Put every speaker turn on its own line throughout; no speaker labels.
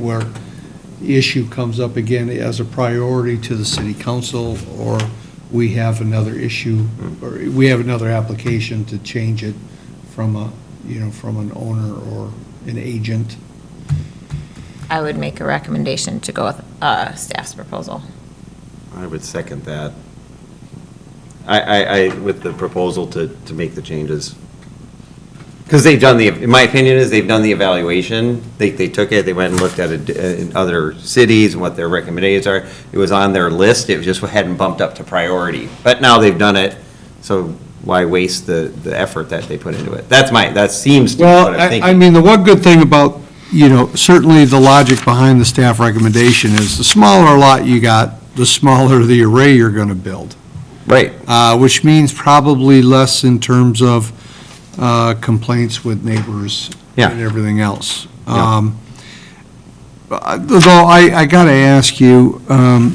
where the issue comes up again as a priority to the city council, or we have another issue, or we have another application to change it from a, you know, from an owner or an agent.
I would make a recommendation to go with uh, staff's proposal.
I would second that. I, I, I, with the proposal to, to make the changes. Because they've done the, in my opinion is they've done the evaluation. They, they took it, they went and looked at it uh, in other cities and what their recommendations are. It was on their list, it just hadn't bumped up to priority. But now they've done it, so why waste the, the effort that they put into it? That's my, that seems to be what
Well,
I'm thinking.
I, I mean, the one good thing about, you know, certainly the logic behind the staff recommendation is the smaller lot you got, the smaller the array you're gonna build.
Right,
uh, which means probably less in terms of uh, complaints with neighbors
Yeah.
and everything else.
Yeah.
Um, uh, Though I, I got to ask you, um,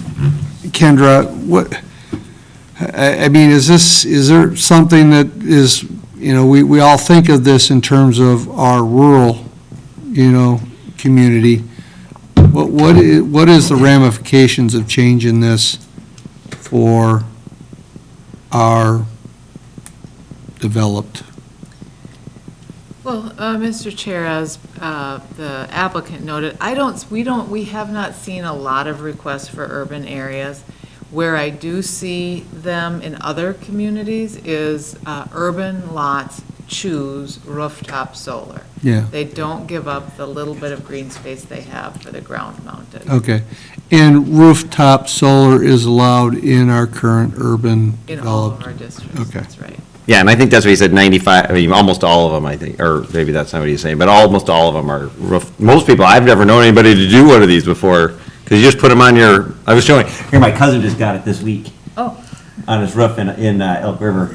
Kendra, what, I, I mean, is this, is there something that is, you know, we, we all think of this in terms of our rural, you know, community. What, what, i- what is the ramifications of changing this for our developed?
Well, uh, Mr. Chair, as uh, the applicant noted, I don't, we don't, we have not seen a lot of requests for urban areas. Where I do see them in other communities is uh, urban lots choose rooftop solar.
Yeah.
They don't give up the little bit of green space they have for the ground mounted.
Okay. And rooftop solar is allowed in our current urban
In all of
developed?
our districts,
Okay.
that's right.
yeah, and I think that's what he said, 95, I mean, almost all of them, I think, or maybe that's not what he's saying, but almost all of them are roof, most people, I've never known anybody to do one of these before, because you just put them on your, I was showing, here, my cousin just got it this week.
Oh.
On his roof in, in uh, Elk River,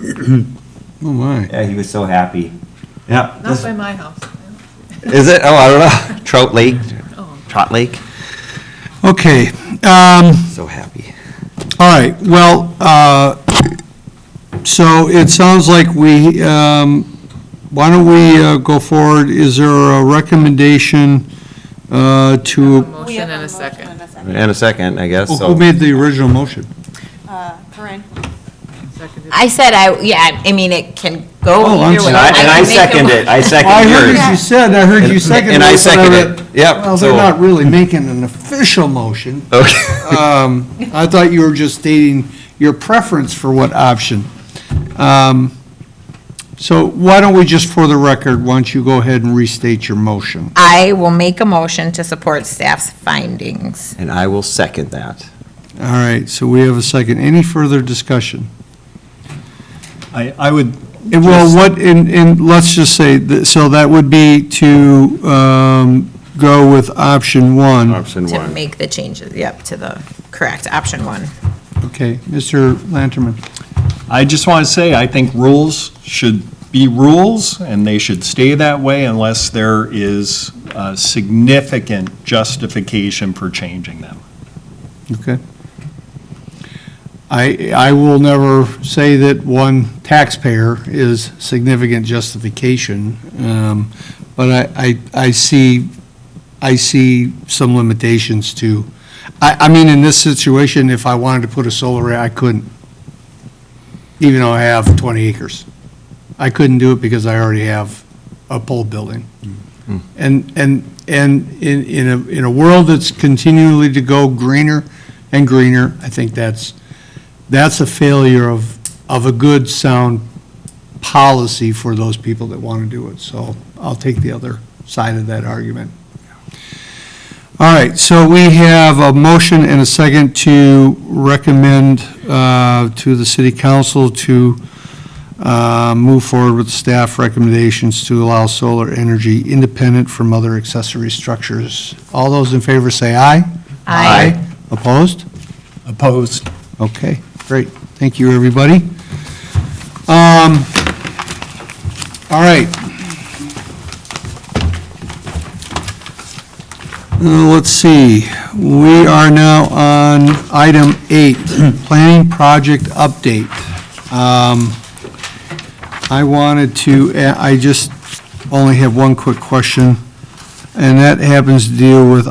Oh, my.
yeah, he was so happy. Yeah.
Not
this-
by my house.
Is it, oh, I don't know, Trout Lake, Trot Lake,
Okay. Um,
so happy.
All right, well, uh, so it sounds like we, um, why don't we uh, go forward? Is there a recommendation uh, to,
We
Motion
have
and a
motion
second.
and a second.
And a second, I guess,
who
so,
made the original motion?
Uh, Corinne,
Seconded.
I said I, yeah, I mean, it can go
Oh, I'm
either way.
sorry.
and I, and I
can make a
second it, I
I
second
heard
yours.
what you said, and I heard you
And-
seconded it.
and I
but
seconded
read-
it. Yep,
Well, they're
so-
not really making an official motion.
Okay,
Um, I thought you were just stating your preference for what option. Um, So why don't we just, for the record, why don't you go ahead and restate your motion?
I will make a motion to support staff's findings.
and I will second that.
All right, so we have a second. Any further discussion?
I, I would,
And Well, what, and, and let's just say, that- so that would be to um, go with option one.
Option
To make the changes, yep, to the correct, option one.
Okay, Mr. Lanterman.
I just want to say, I think rules should be rules, and they should stay that way unless there is uh, significant justification for changing them.
Okay. I, I will never say that one taxpayer is significant justification, um, but I, I, I see, I see some limitations to, I, I mean, in this situation, if I wanted to put a solar array, I couldn't, even though I have 20 acres. I couldn't do it because I already have a pole building. And, and, and in, in a, in a world that's continually to go greener and greener, I think that's, that's a failure of, of a good, sound policy for those people that want to do it. So I'll take the other side of that argument. All right, so we have a motion and a second to recommend uh, to the city council to uh, move forward with staff recommendations to allow solar energy independent from other accessory structures. All those in favor say aye.
Aye.
Opposed?
Opposed?
Okay, great. Thank you, everybody. Um, All right. Uh, Let's see, we are now on item eight, planning project update. Um, I wanted to, uh, I just only have one quick question, and that happens to deal with